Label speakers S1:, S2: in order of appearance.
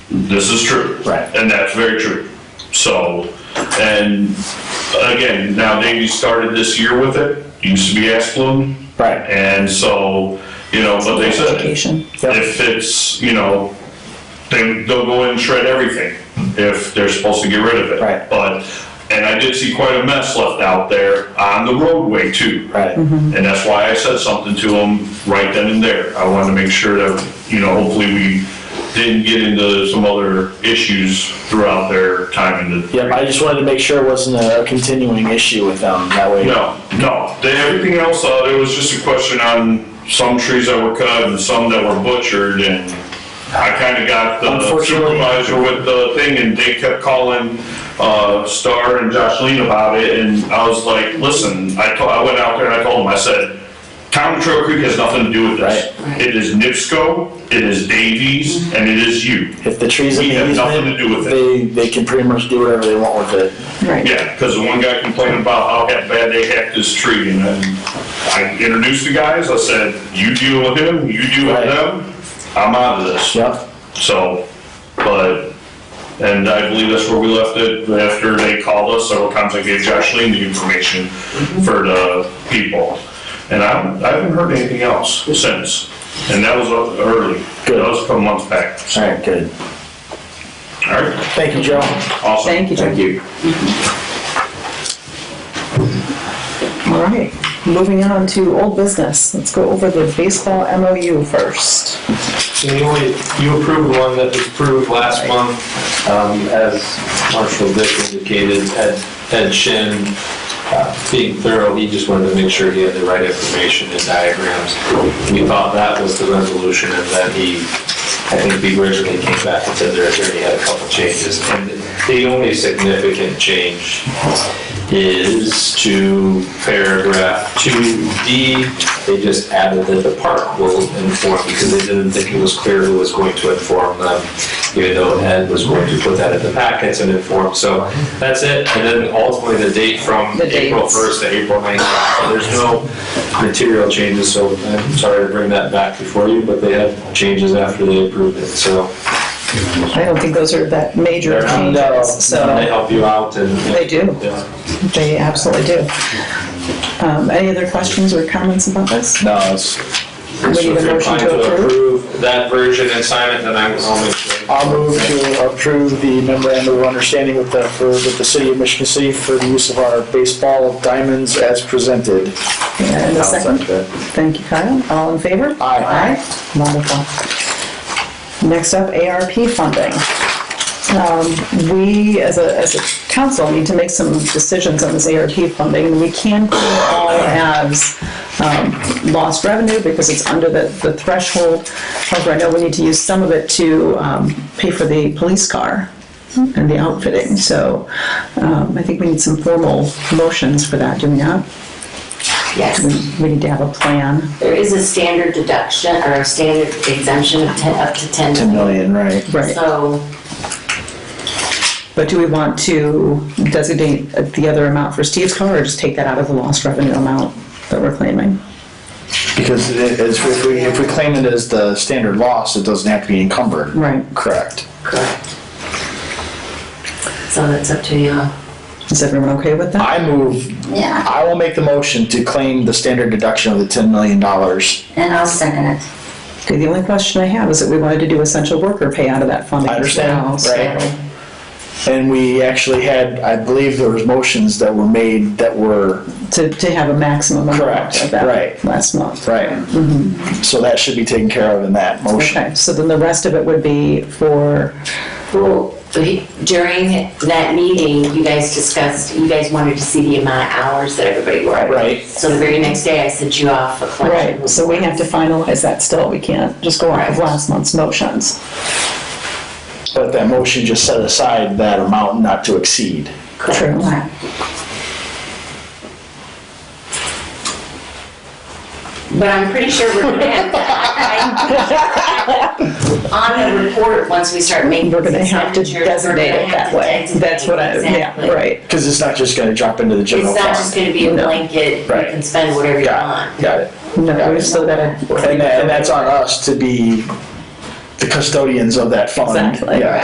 S1: This is true.
S2: Right.
S1: And that's very true. So, and again, now Davy started this year with it, used to be Asplund.
S2: Right.
S1: And so, you know, but they said,
S3: Education.
S2: Yep.
S1: if it's, you know, they, they'll go in and shred everything if they're supposed to get rid of it.
S2: Right.
S1: But, and I did see quite a mess left out there on the roadway too.
S2: Right.
S1: And that's why I said something to them right then and there. I wanted to make sure that, you know, hopefully we didn't get into some other issues throughout their time in the.
S2: Yep, I just wanted to make sure it wasn't a continuing issue with them, that way.
S1: No, no, They- everything else, uh, there was just a question on some trees that were cut and some that were butchered and I kinda got the
S2: Unfortunately-
S1: supervisor with the thing and they kept calling, uh, Star and Josh Lean about it and I was like, listen, I told, I went out there and I told them, I said, Town of Trail Creek has nothing to do with this. It is NIPSCO, it is Davies, and it is you.
S2: If the trees in
S1: We
S2: the
S1: have nothing to do
S2: easement,
S1: with it.
S2: they, they can pretty much do whatever they want with it.
S3: Right.
S1: Yeah, because the one guy complained about how bad they hacked his tree, and then I introduced the guys, I said, you deal with him, you deal with
S2: Right.
S1: them, I'm out of this.
S2: Yep,
S1: So, but, and I believe that's where we left it, after they called us several times, I gave Josh Lee the information for the people. And I haven't, I haven't heard anything else since, and that was early, that was a couple months back.
S2: alright, good.
S1: All right,
S2: Thank you, Joe.
S1: awesome.
S3: Thank you, Joe.
S2: you.
S3: All right, moving on to old business. Let's go over the baseball MOU first.
S4: You only, you approved one that was approved last month, um, as Marshall Dick indicated, Ed, Ed Shin, uh, being thorough, he just wanted to make sure he had the right information and diagrams. We thought that was the resolution and that he, I think we originally came back and said their attorney had a couple changes. And the only significant change is to paragraph two D. They just added that the park will inform, because they didn't think it was clear who was going to inform them, even though Ed was going to put that in the packets and inform. So that's it. And then ultimately, the date from
S3: The
S4: April
S3: dates.
S4: first to April ninth. There's no material changes, so I'm sorry to bring that back before you, but they had changes after they approved it. So
S3: I don't think those are that major
S4: They're not.
S3: changes,
S4: they
S3: so
S4: help you out and.
S3: They do.
S4: Yeah.
S3: they absolutely do. Um, Any other questions or comments about this?
S2: No, it's,
S3: We need a
S4: So if
S3: motion
S4: you're inclined
S3: to approve.
S4: That version and sign it, then I will make sure.
S2: I'll move to approve the memorandum of understanding with the, for, with the city of Michigan City for the use of our baseball diamonds as presented.
S3: And a
S2: I'll
S3: second.
S2: second
S3: Thank you, Kyle. All in favor?
S2: Aye.
S3: Aye. Wonderful. Next up, ARP funding. Um, We, as a, as a council, need to make some decisions on this ARP funding. We can put it all as um, lost revenue because it's under the, the threshold. However, I know we need to use some of it to um, pay for the police car and the outfitting. So um, I think we need some formal motions for that, do we not?
S5: Yes,
S3: We- We need to have a plan.
S5: there is a standard deduction or a standard exemption of 10, up to 10
S2: Ten
S5: million.
S2: million, right?
S3: Right,
S5: So
S3: but do we want to designate the other amount for Steve's car or just take that out of the lost revenue amount that we're claiming?
S2: Because it is, if we, if we claim it as the standard loss, it doesn't have to be encumbered.
S3: Right.
S2: Correct.
S5: Correct. So that's up to you.
S3: Is everyone okay with that?
S2: I move
S6: Yeah,
S2: I will make the motion to claim the standard deduction of the ten million dollars.
S6: and I'll second it.
S3: Okay, the only question I have is that we wanted to do essential worker pay out of that funding
S2: I
S3: as
S2: understand,
S3: well, so-
S2: right. And we actually had, I believe there was motions that were made that were,
S3: To, to have a maximum amount
S2: Correct,
S3: of that
S2: right.
S3: last month.
S2: right. So that should be taken care of in that motion.
S3: Mm-hmm. Okay, so then the rest of it would be for,
S5: Well, he- during that meeting, you guys discussed, you guys wanted to see the amount of hours that everybody worked.
S2: Right.
S5: So the very next day, I sent you off a collection.
S3: right, so we have to finalize that still. We can't just go off of
S5: Right.
S3: last month's motions.
S2: But that motion just set aside that amount not to exceed.
S3: True.
S6: Right.
S5: But I'm pretty sure we're gonna have that. On the report, once we start making.
S3: We're gonna have to
S5: expenditures, we're gonna
S3: designate it that
S5: have to
S3: way.
S5: designate
S3: That's what I,
S5: exactly.
S3: yeah, right.
S2: Because it's not just gonna drop into the general
S5: It's not
S2: fund.
S5: just gonna be a
S3: No.
S5: blanket, you
S2: Right.
S5: can spend whatever you
S2: Got it,
S5: want.
S2: got it.
S3: No, we've still gotta,
S2: And that, and that's on us to be the custodians of that fund.
S3: Exactly.
S2: Yeah.